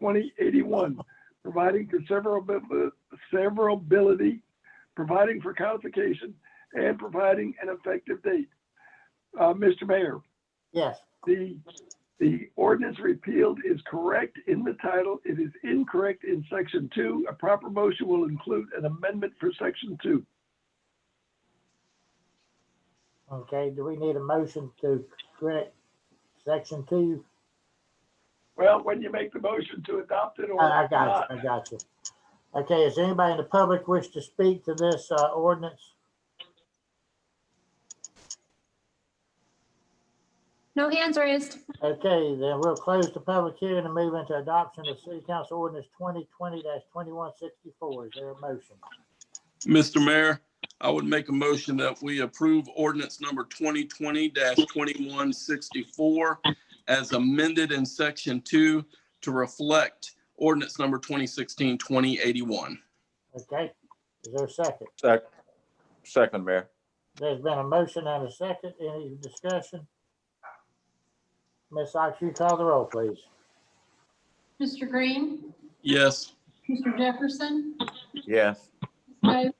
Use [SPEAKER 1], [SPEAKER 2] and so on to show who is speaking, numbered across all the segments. [SPEAKER 1] 2081, providing for severability, severability, providing for codification, and providing an effective date. Uh, Mr. Mayor,
[SPEAKER 2] Yes,
[SPEAKER 1] the, the ordinance repealed is correct in the title. It is incorrect in section two. A proper motion will include an amendment for section two.
[SPEAKER 2] okay, do we need a motion to correct section two?
[SPEAKER 1] Well, when you make the motion to adopt it or
[SPEAKER 2] I I
[SPEAKER 1] not,
[SPEAKER 2] got you, I got you. Okay, is anybody in the public wish to speak to this uh, ordinance?
[SPEAKER 3] No hands raised.
[SPEAKER 2] Okay, then we'll close the public hearing and move into adoption of City Council Ordinance twenty twenty twenty-one sixty-four. Is there a motion?
[SPEAKER 4] Mr. Mayor, I would make a motion that we approve ordinance number 2020-2164 as amended in section two to reflect ordinance number 2016-2081.
[SPEAKER 2] Okay, is there a second?
[SPEAKER 5] Sec- Second, Mayor.
[SPEAKER 2] There's been a motion and a second. Any discussion? Ms. Ox, you call the roll, please.
[SPEAKER 6] Mr. Green,
[SPEAKER 4] Yes.
[SPEAKER 6] Mr. Jefferson, Ms.
[SPEAKER 5] Yes.
[SPEAKER 6] Moses,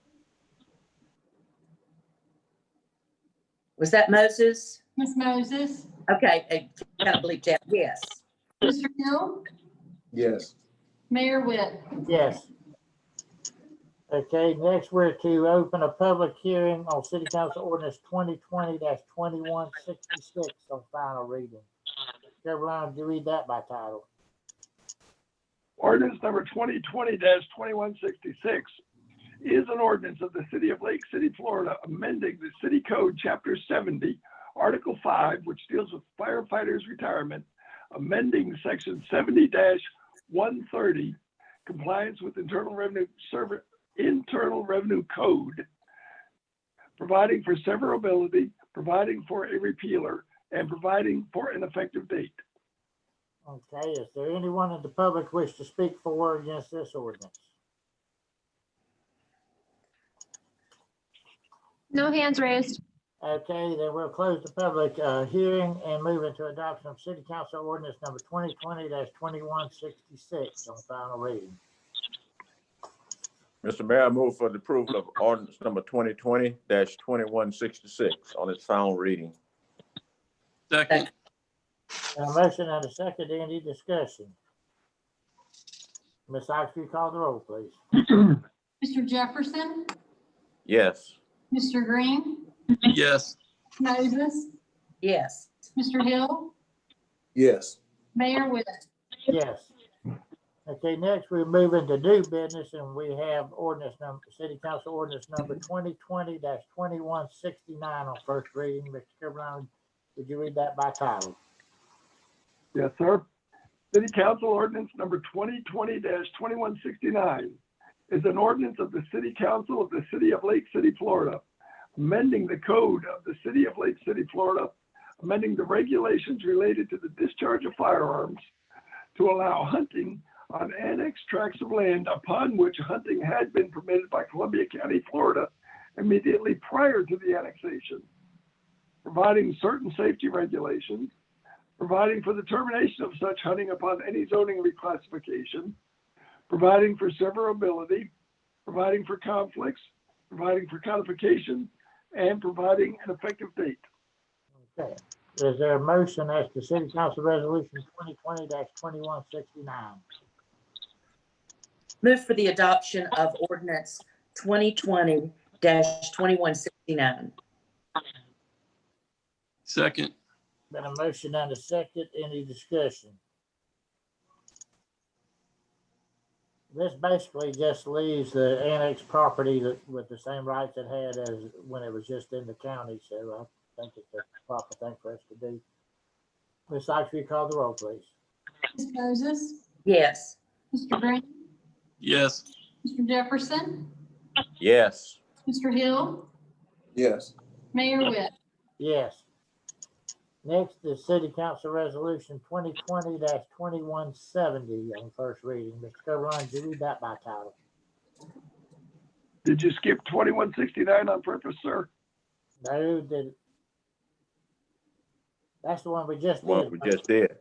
[SPEAKER 7] Was that Moses?
[SPEAKER 6] Ms. Moses,
[SPEAKER 7] Okay, I cannot believe that. Yes.
[SPEAKER 6] Mr. Hill,
[SPEAKER 8] yes,
[SPEAKER 6] Mayor Whit.
[SPEAKER 2] Yes. Okay, next we're to open a public hearing on City Council Ordinance twenty twenty twenty-one sixty-six on final reading. Caroline, do you read that by title?
[SPEAKER 1] Ordinance number twenty twenty twenty-one sixty-six is an ordinance of the city of Lake City, Florida, amending the city code, chapter seventy, article five, which deals with firefighters' retirement, amending section seventy one thirty, compliance with internal revenue server, internal revenue code, providing for severability, providing for a repealer, and providing for an effective date.
[SPEAKER 2] Okay, is there anyone in the public wish to speak for or against this ordinance?
[SPEAKER 3] No hands raised.
[SPEAKER 2] Okay, then we'll close the public, uh, hearing and move into adoption of City Council Ordinance number twenty twenty twenty-one sixty-six on final reading.
[SPEAKER 5] Mr. Mayor, I move for the approval of ordinance number twenty twenty twenty-one sixty-six on its final reading.
[SPEAKER 4] Second.
[SPEAKER 2] And a motion and a second, any discussion? Ms. Ox, you call the roll, please.
[SPEAKER 6] Mr. Jefferson,
[SPEAKER 5] Yes.
[SPEAKER 6] Mr. Green,
[SPEAKER 4] Yes.
[SPEAKER 6] Moses,
[SPEAKER 7] Yes.
[SPEAKER 6] Mr. Hill,
[SPEAKER 8] yes,
[SPEAKER 6] Mayor Whit.
[SPEAKER 2] Yes. Okay, next we're moving to new business and we have ordinance number, city council ordinance number twenty twenty twenty-one sixty-nine on first reading. Mr. Kirkland, would you read that by title?
[SPEAKER 1] Yes, sir. City Council Ordinance Number 2020-2169 is an ordinance of the City Council of the City of Lake City, Florida, amending the code of the City of Lake City, Florida, amending the regulations related to the discharge of firearms to allow hunting on annexed tracts of land upon which hunting had been permitted by Columbia County, Florida, immediately prior to the annexation, providing certain safety regulations, providing for the termination of such hunting upon any zoning reclassification, providing for severability, providing for conflicts, providing for codification, and providing an effective date.
[SPEAKER 2] Okay, is there a motion as to city council resolution twenty twenty twenty-one sixty-nine?
[SPEAKER 7] Move for the adoption of ordinance twenty twenty twenty-one sixty-nine.
[SPEAKER 4] Second.
[SPEAKER 2] Been a motion and a second, any discussion? This basically just leaves the annexed property that, with the same rights it had as when it was just in the county, so I think it's the proper thing for us to do. Ms. Sykes, will you call the roll, please?
[SPEAKER 6] Ms. Moses,
[SPEAKER 7] Yes.
[SPEAKER 6] Mr. Green,
[SPEAKER 4] Yes.
[SPEAKER 6] Mr. Jefferson,
[SPEAKER 5] Yes.
[SPEAKER 6] Mr. Hill,
[SPEAKER 8] yes.
[SPEAKER 6] Mayor Whit.
[SPEAKER 2] Yes. Next is City Council Resolution twenty twenty twenty-one seventy on first reading. Mr. Coberline, do you read that by title?
[SPEAKER 1] Did you skip 2169 on purpose, sir?
[SPEAKER 2] No, did. That's the one we just did.
[SPEAKER 5] What we just did.